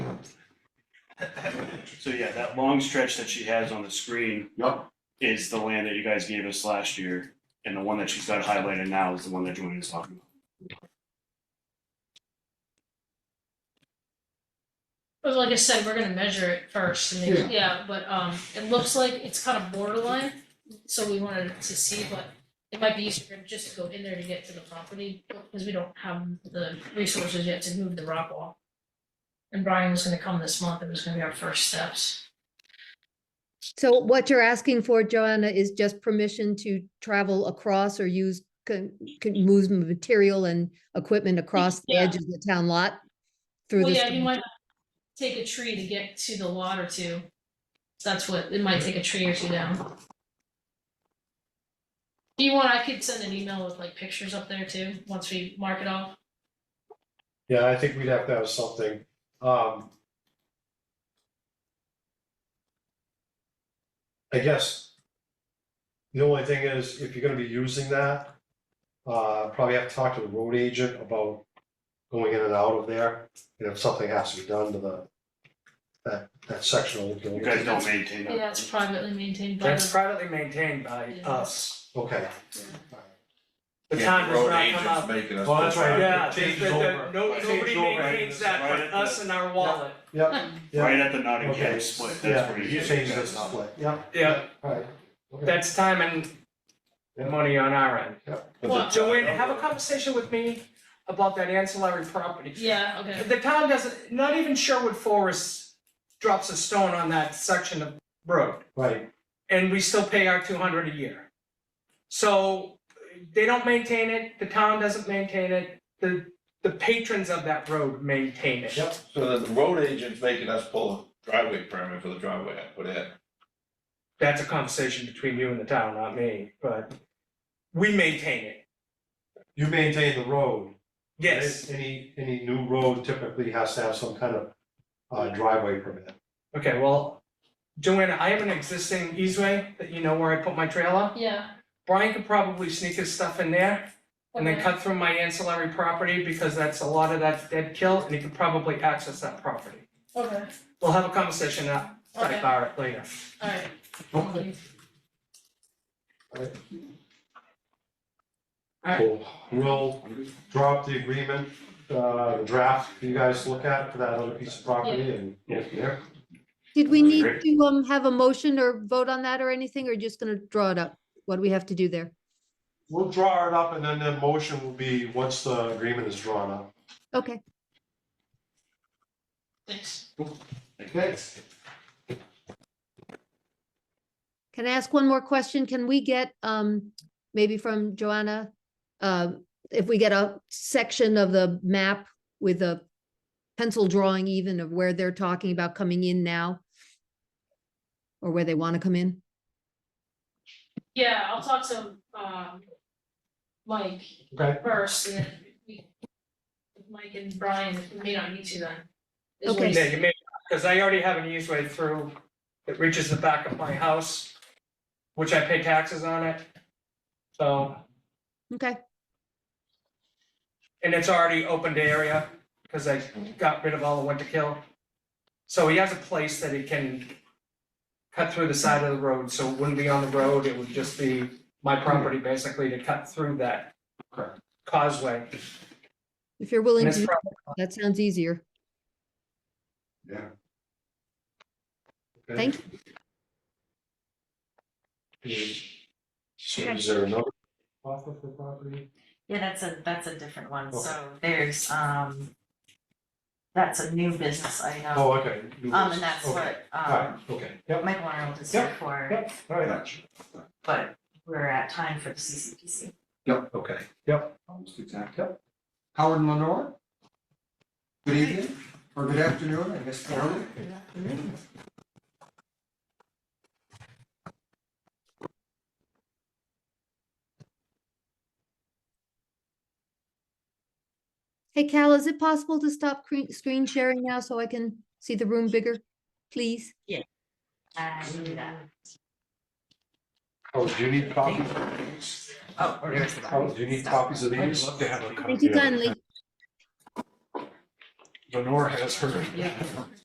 So yeah, that long stretch that she has on the screen Yep, is the land that you guys gave us last year. And the one that she's got highlighted now is the one that Joanne is talking about. But like I said, we're gonna measure it first, and Yeah. then, yeah, but um, it looks like it's kind of borderline, so we wanted to see, but it might be easier just to go in there to get to the property, because we don't have the resources yet to move the rock wall. And Brian was gonna come this month, it was gonna be our first steps. So what you're asking for, Joanna, is just permission to travel across or use, can, can move material and equipment across the Yeah. edge of the town lot? Through Well, this, yeah, you might take a tree to get to the lot or two, that's what, it might take a tree or two down. Do you want, I could send an email with like pictures up there too, once we mark it off. Yeah, I think we'd have to have something, um. I guess. The only thing is, if you're gonna be using that, uh, probably have to talk to the road agent about going in and out of there. And if something has to be done to the, that, that section of the You guys building. don't maintain that. Yeah, it's privately maintained by That's the, privately maintained by Yeah. us. Okay, The Yeah, town the does road not come agents up. making us. Well, that's go right. back. Yeah, It the- changes the- the- over. no, It nobody changes over. maintains that Right but at us the- and our wallet. yeah, yeah. Right at the Nottingham Okay. split, that's Yeah, where you you. change this split, yeah, Yeah, alright, okay. that's time and Yeah. money on our end. But the- Well, Joanne, have a conversation with me about that ancillary property. yeah, okay, The town doesn't, not even Sherwood Forest drops a stone on that section of road. Right, and we still pay our two hundred a year. So they don't maintain it, the town doesn't maintain it, the the patrons of that road maintain it. yep, So that the road agent's making us pull a driveway permit for the driveway I put in. That's a conversation between you and the town, not me, but we maintain it, you maintain the road. yes, Any, any new road typically has to have some kind of uh, driveway permit. okay, well, Joanna, I have an existing easeway that you know where I put my trailer. yeah. Brian could probably sneak his stuff in there and then okay. cut through my ancillary property because that's a lot of that's dead kill and he could probably access that property. Okay, We'll have a conversation uh, Okay. about it later. alright. Cool. We'll drop the agreement, uh, the draft for you guys to look at for that other piece of property and go from there. did we need Great. to, um, have a motion or vote on that or anything, or just gonna draw it up? What do we have to do there? We'll draw it up and then the motion will be, once the agreement is drawn up. Okay, Thanks. Okay. can I ask one more question? Can we get, um, maybe from Joanna? Uh, if we get a section of the map with a pencil drawing even of where they're talking about coming in now? Or where they want to come in? Yeah, I'll talk to, um, Mike Okay, first, and then we, Mike and Brian may not need to then. is what Okay. he Yeah, said. you may, because I already have an easeway through that reaches the back of my house, which I pay taxes on it. So, Okay, and it's already opened area, because I got rid of all the winter kill. So he has a place that he can cut through the side of the road, so it wouldn't be on the road, it would just be my property basically to cut through that causeway. if you're And willing it's to, probably that sounds easier. okay. Thank So is there another offer for property? Yeah, that's a, that's a different one, Okay. so there's, um, that's a new business item, Oh, okay. new um, business. and that's Okay. what, Alright, um, okay, yep, Michael Arnold is Yep, here for, yep, alright, but we're at time for the CCPC. Yep, okay. Yep. Almost exact. Yep. Howard Lenore? Good evening, or good afternoon, I guess, Howard. Hey Cal, is it possible to stop cre- screen sharing now so I can see the room bigger? Please, And, uh, oh, do you need copies? oh, where's the Oh, do you need copies of these? love to have a copy. thank you kindly. Lenore has her. Yeah.